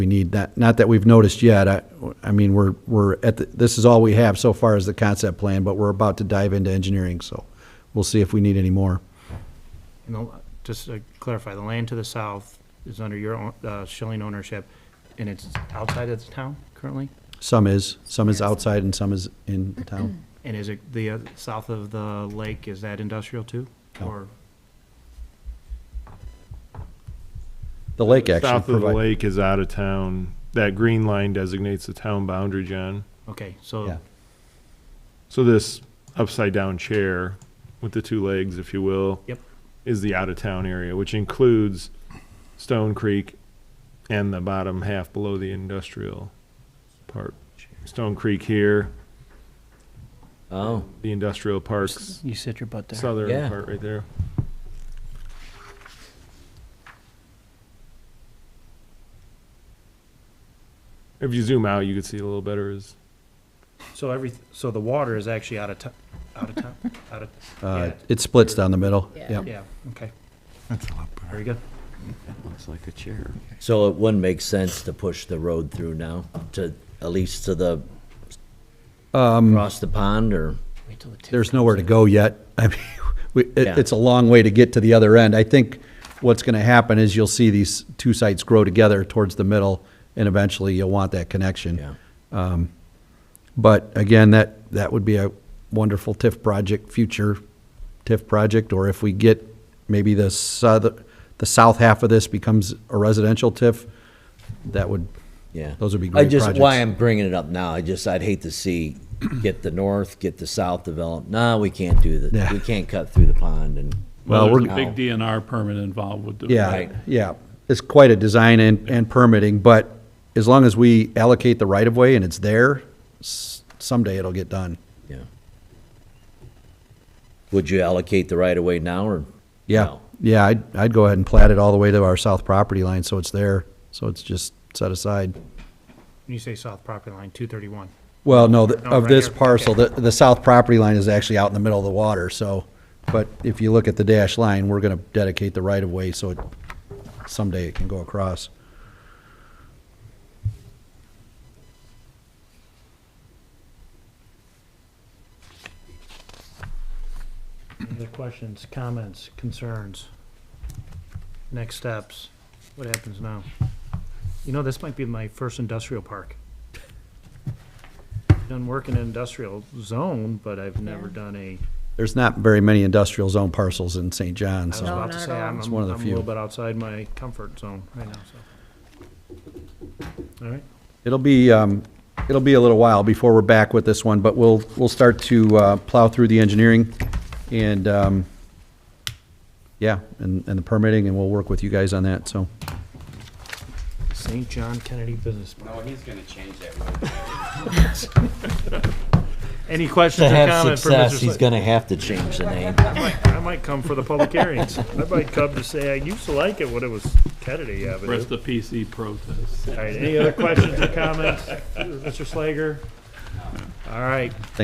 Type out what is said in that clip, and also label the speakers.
Speaker 1: we need that, not that we've noticed yet, I, I mean, we're, we're at, the- this is all we have so far is the concept plan, but we're about to dive into engineering, so we'll see if we need any more.
Speaker 2: And the, just to clarify, the land to the south is under your own, uh, Schilling ownership, and it's outside of the town currently?
Speaker 1: Some is, some is outside and some is in town.
Speaker 2: And is it the, uh, south of the lake, is that industrial too?
Speaker 1: No.
Speaker 2: Or,
Speaker 1: The lake actually
Speaker 3: South of the
Speaker 1: provi-
Speaker 3: lake is out of town. That green line designates the town boundary, John.
Speaker 2: okay,
Speaker 1: Yeah.
Speaker 2: so,
Speaker 3: So this upside down chair with the two legs, if you will.
Speaker 2: Yep.
Speaker 3: Is the out of town area, which includes Stone Creek and the bottom half below the industrial part. Stone Creek here,
Speaker 4: Oh,
Speaker 3: the industrial parks,
Speaker 5: You sit your butt there.
Speaker 3: southern
Speaker 4: Yeah.
Speaker 3: part right there. If you zoom out, you can see it a little better is
Speaker 2: so every, so the water is actually out of town, out of town, out of,
Speaker 1: Uh,
Speaker 2: Yeah.
Speaker 1: it splits down the middle,
Speaker 6: Yeah.
Speaker 1: yeah.
Speaker 2: yeah, okay. That's a lot better. Very good.
Speaker 4: so it wouldn't make sense to push the road through now, to, at least to the,
Speaker 1: Um,
Speaker 4: across the pond, or?
Speaker 5: Wait till the tip
Speaker 1: There's
Speaker 5: comes
Speaker 1: nowhere to
Speaker 5: in.
Speaker 1: go yet. I mean, we,
Speaker 4: Yeah.
Speaker 1: it, it's a long way to get to the other end. I think what's gonna happen is you'll see these two sites grow together towards the middle, and eventually you'll want that connection.
Speaker 4: Yeah.
Speaker 1: But again, that, that would be a wonderful TIF project, future TIF project, or if we get maybe the south, the south half of this becomes a residential TIF, that would,
Speaker 4: Yeah.
Speaker 1: Those would be
Speaker 4: I
Speaker 1: great
Speaker 4: just, why
Speaker 1: projects.
Speaker 4: I'm bringing it up now, I just, I'd hate to see, get the north, get the south developed. No, we can't do that.
Speaker 1: Yeah.
Speaker 4: We can't cut through the pond and.
Speaker 1: Well,
Speaker 7: Well, there's
Speaker 1: we're-
Speaker 7: a big DNR permit involved with doing that.
Speaker 1: yeah,
Speaker 4: Right.
Speaker 1: yeah. It's quite a design and, and permitting, but as long as we allocate the right of way and it's there, s- someday it'll get done.
Speaker 4: Yeah. Would you allocate the right of way now or?
Speaker 1: Yeah,
Speaker 4: no?
Speaker 1: yeah, I'd, I'd go ahead and plat it all the way to our south property line, so it's there, so it's just set aside.
Speaker 2: When you say south property line, two thirty-one,
Speaker 1: Well, no, the-
Speaker 2: No,
Speaker 1: of
Speaker 2: right
Speaker 1: this
Speaker 2: here.
Speaker 1: parcel, the, the south property line is actually out in the middle of the water, so, but if you look at the dash line, we're gonna dedicate the right of way, so it, someday it can go across.
Speaker 2: any other questions, comments, concerns? Next steps, what happens now? You know, this might be my first industrial park. Done work in an industrial zone, but I've never
Speaker 6: Yeah.
Speaker 2: done a
Speaker 1: There's not very many industrial zone parcels in St. John,
Speaker 2: I was
Speaker 1: so,
Speaker 6: No,
Speaker 2: about to
Speaker 6: not at
Speaker 2: say,
Speaker 6: all.
Speaker 2: I'm,
Speaker 1: It's
Speaker 2: I'm
Speaker 1: one of the
Speaker 2: I'm a
Speaker 1: few.
Speaker 2: little bit outside my comfort zone right now, so. All right,
Speaker 1: it'll be, um, it'll be a little while before we're back with this one, but we'll, we'll start to, uh, plow through the engineering and, um, yeah, and, and the permitting, and we'll work with you guys on that, so.
Speaker 2: St. John Kennedy Business Park.
Speaker 8: Oh, he's gonna change that word.
Speaker 2: Any questions
Speaker 4: To
Speaker 2: or
Speaker 4: have
Speaker 2: comments for Mr.
Speaker 4: success, he's
Speaker 2: Slate?
Speaker 4: gonna have to change the name.
Speaker 2: I might come for the public hearings. I might come to say, I used to like it when it was Kennedy Avenue.
Speaker 7: Rest the PC protest.
Speaker 2: All right, any other questions or comments, Mr. Slager? All right,